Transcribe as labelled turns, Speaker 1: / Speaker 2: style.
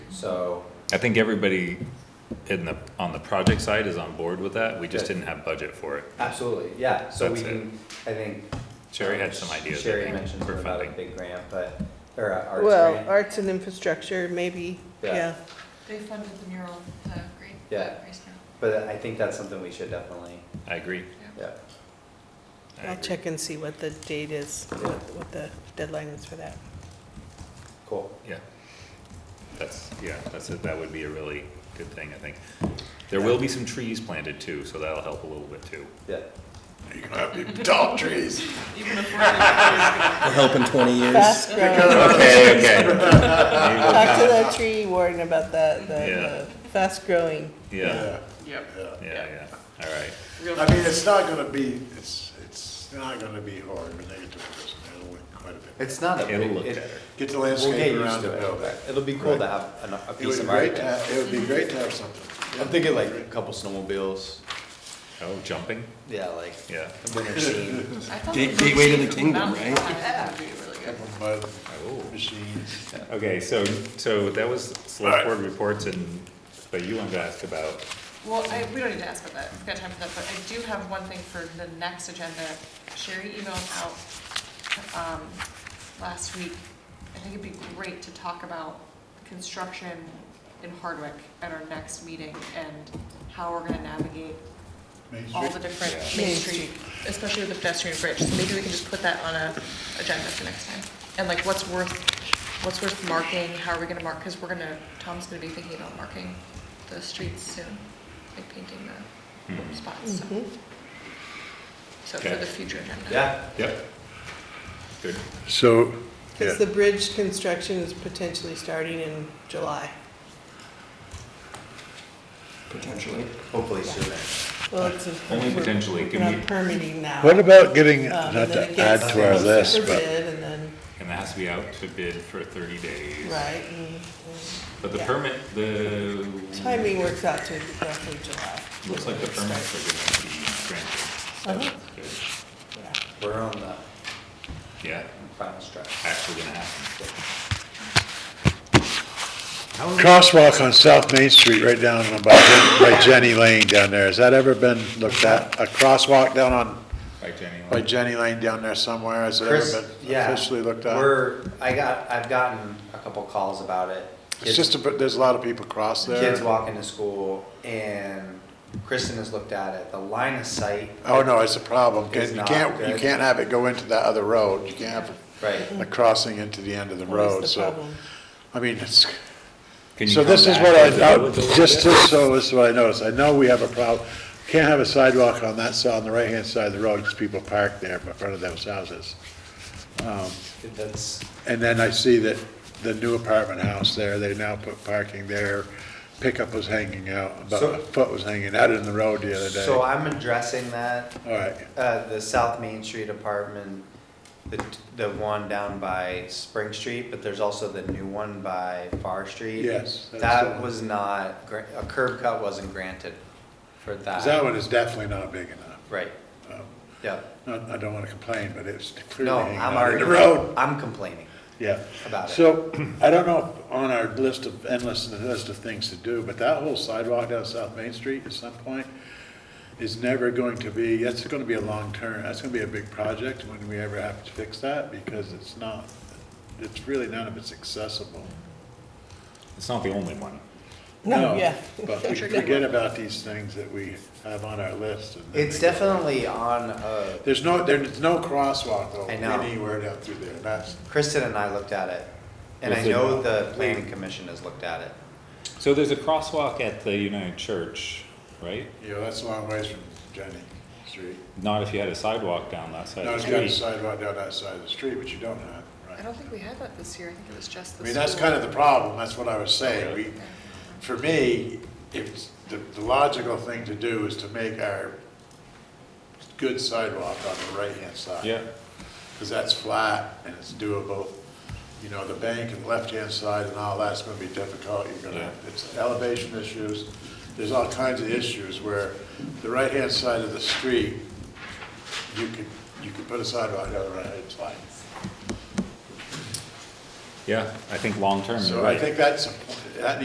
Speaker 1: So,
Speaker 2: I think everybody in the, on the project side is on board with that, we just
Speaker 1: Good.
Speaker 2: didn't have budget for it.
Speaker 1: absolutely, yeah, so we
Speaker 2: That's it.
Speaker 1: can, I think.
Speaker 2: Um, Sherry had some ideas, I
Speaker 1: Sherry
Speaker 2: think,
Speaker 1: mentioned
Speaker 2: for
Speaker 1: something about a
Speaker 2: funding.
Speaker 1: big grant, but, or a arts
Speaker 3: Well,
Speaker 1: grant,
Speaker 3: arts and infrastructure, maybe,
Speaker 1: Yeah.
Speaker 3: yeah.
Speaker 4: They funded the mural, the great,
Speaker 1: Yeah.
Speaker 4: the Grace mural.
Speaker 1: but I think that's something we should definitely,
Speaker 2: I agree.
Speaker 1: yeah.
Speaker 2: I
Speaker 3: I'll
Speaker 2: agree.
Speaker 3: check and see what the date is, what what the deadline is for that.
Speaker 1: Cool.
Speaker 2: Yeah. That's, yeah, that's, it. that would be a really good thing, I think. There will be some trees planted too, so that'll help a little bit too.
Speaker 1: Yeah.
Speaker 5: You're gonna have big tall trees.
Speaker 4: Even if we're-
Speaker 6: We'll help in 20 years.
Speaker 3: Fast growing,
Speaker 2: Okay, okay.
Speaker 3: talk to the tree warden about that,
Speaker 2: Yeah.
Speaker 3: the, the fast growing.
Speaker 2: Yeah,
Speaker 4: Yep.
Speaker 5: Yeah.
Speaker 2: yeah, yeah, all right.
Speaker 4: Real-
Speaker 5: I mean, it's not gonna be, it's, it's not gonna be hard when they get to this, it'll look quite a bit.
Speaker 1: It's not a
Speaker 2: It'll
Speaker 1: big,
Speaker 2: look
Speaker 1: it-
Speaker 2: better.
Speaker 5: Get the
Speaker 1: we'll get
Speaker 5: landscape
Speaker 1: used
Speaker 5: around the
Speaker 1: to
Speaker 5: building.
Speaker 1: it. It'll be cool to
Speaker 5: Right.
Speaker 1: have an- a
Speaker 5: It would
Speaker 1: piece
Speaker 5: be
Speaker 1: of
Speaker 5: great
Speaker 1: art.
Speaker 5: to, have- it would be great to have something.
Speaker 1: I'm thinking like a couple snowmobiles,
Speaker 2: Oh, jumping,
Speaker 1: yeah, like
Speaker 2: yeah.
Speaker 1: a winter scene.
Speaker 4: I thought
Speaker 6: Gate-
Speaker 4: the
Speaker 6: gateway to the
Speaker 4: mountain
Speaker 6: kingdom, right?
Speaker 4: That would be really good.
Speaker 5: Couple mud
Speaker 2: Oh.
Speaker 5: machines.
Speaker 2: Okay, so, so that was select board reports and, but you wanted to ask about,
Speaker 4: Well, I, we don't need to ask about that, we've got time for that, but I do have one thing for the next agenda. Sherry emailed out, um, last week, I think it'd be great to talk about construction in Hardwick at our next meeting and how we're gonna navigate
Speaker 5: Main
Speaker 4: all the
Speaker 5: Street.
Speaker 4: different
Speaker 2: Yeah.
Speaker 4: Main Street, especially with the pedestrian bridge, so maybe we can just put that on a agenda for next time. And like, what's worth, what's worth marking, how are we gonna mark, because we're gonna, Tom's gonna be thinking about marking the streets soon, like painting
Speaker 5: Hmm.
Speaker 4: the spots, so. So for
Speaker 2: Okay.
Speaker 4: the future agenda.
Speaker 1: Yeah,
Speaker 2: yep. Good,
Speaker 5: So,
Speaker 3: Because the bridge construction is potentially starting in July.
Speaker 6: Potentially.
Speaker 1: hopefully sooner.
Speaker 3: Well, it's. a-
Speaker 2: Only
Speaker 3: we're-
Speaker 2: potentially,
Speaker 3: we're
Speaker 2: can
Speaker 3: not
Speaker 2: we-
Speaker 3: permitting now.
Speaker 5: what about getting,
Speaker 3: Um,
Speaker 4: Uh,
Speaker 5: not
Speaker 3: and then it
Speaker 5: to
Speaker 3: gets
Speaker 5: add to our
Speaker 3: posted
Speaker 5: list,
Speaker 3: for
Speaker 5: but
Speaker 3: bid And then,
Speaker 2: and that has to be out to bid for thirty days.
Speaker 3: right, and
Speaker 2: But the
Speaker 3: Yeah.
Speaker 2: permit, the.
Speaker 3: timing works out to roughly July.
Speaker 2: Looks like the permits are gonna be granted. So,
Speaker 3: Uh-huh. Yeah.
Speaker 1: We're on the
Speaker 2: good. Yeah,
Speaker 1: final stretch.
Speaker 2: actually gonna happen.
Speaker 5: crosswalk on South Main Street, right down about, by Jenny Lane down there, has that ever been looked at? A crosswalk down on
Speaker 2: Right, Jenny?
Speaker 5: By Jenny Lane down there somewhere, has it
Speaker 1: Chris,
Speaker 5: ever been
Speaker 1: yeah,
Speaker 5: officially looked at?
Speaker 1: We're, I got, I've gotten a couple calls about it.
Speaker 5: It's just, a bit- there's a lot of people cross there.
Speaker 1: Kids walking to school and Kristen has looked at it. The line of sight.
Speaker 5: Oh, no, it's a problem, 'cause
Speaker 1: It's
Speaker 5: you
Speaker 1: not
Speaker 5: can't, you
Speaker 1: good.
Speaker 5: can't have it go into that other road, you can't have
Speaker 1: Right.
Speaker 5: a crossing into the end of the road,
Speaker 3: Always the
Speaker 5: so,
Speaker 3: problem.
Speaker 5: I mean, it's, so this is what I, I- just, just so, this is what I noticed, I know we have a problem, can't have a sidewalk on that side, on the right-hand side of the road, because people park there in front of those houses.
Speaker 1: That's,
Speaker 5: And then I see that the new apartment house there, they now put parking there. Pickup was hanging out, about
Speaker 1: So-
Speaker 5: a foot was hanging out in the road the other day.
Speaker 1: so I'm addressing that,
Speaker 5: All right,
Speaker 1: uh, the South Main Street apartment, the, the one down by Spring Street, but there's also the new one by Far Street.
Speaker 5: Yes, that's the
Speaker 1: That
Speaker 5: one.
Speaker 1: was not, gra- a curb cut wasn't granted for
Speaker 5: 'Cause that one is definitely not big enough.
Speaker 1: Right,
Speaker 5: Um,
Speaker 1: yeah.
Speaker 5: not- I don't want to complain, but it's clearly
Speaker 1: No,
Speaker 5: hanging
Speaker 1: I'm
Speaker 5: out
Speaker 1: already,
Speaker 5: in the road.
Speaker 1: I'm complaining.
Speaker 5: Yeah.
Speaker 1: about it.
Speaker 5: So I don't know if on our list of, endless list of things to do, but that whole sidewalk down South Main Street at some point is never going to be, that's going to be a long term, that's going to be a big project when we ever have to fix that because it's not, it's really none of it's accessible.
Speaker 2: It's not the only one.
Speaker 3: No, yeah.
Speaker 5: But we forget about these things that we have on our list. and then
Speaker 1: It's
Speaker 5: they go-
Speaker 1: definitely on, uh,
Speaker 5: There's no, there's no crosswalk though
Speaker 1: I know.
Speaker 5: anywhere down through there. That's,
Speaker 1: Kristen and I looked at it, and I
Speaker 2: Listen,
Speaker 1: know the planning commission has looked at it.
Speaker 2: So there's a crosswalk at the United Church, right?
Speaker 5: you know, that's a long ways from Jenny Street.
Speaker 2: Not if you had a sidewalk down that side
Speaker 5: No,
Speaker 2: of
Speaker 5: it's got
Speaker 2: the
Speaker 5: a
Speaker 2: street.
Speaker 5: sidewalk down that side of the street, but you don't have,
Speaker 4: I
Speaker 5: right?
Speaker 4: don't think we had that this year, I think it was just
Speaker 5: I
Speaker 4: the
Speaker 5: mean, that's
Speaker 4: school.
Speaker 5: kind of the problem, that's what I was saying.
Speaker 2: Really?
Speaker 5: We, for me, it's, the, the logical thing to do is to make our good sidewalk on the right-hand side.
Speaker 2: Yeah,
Speaker 5: Because that's flat and it's doable. You know, the bank and left-hand side and all that's gonna be difficult. You're gonna,
Speaker 2: Yeah.
Speaker 5: it's elevation issues. There's all kinds of issues where the right-hand side of the street, you could, you could put a sidewalk on the right-hand side.
Speaker 2: yeah, I think long-term, you're
Speaker 5: So I
Speaker 2: right.
Speaker 5: think that's, a point.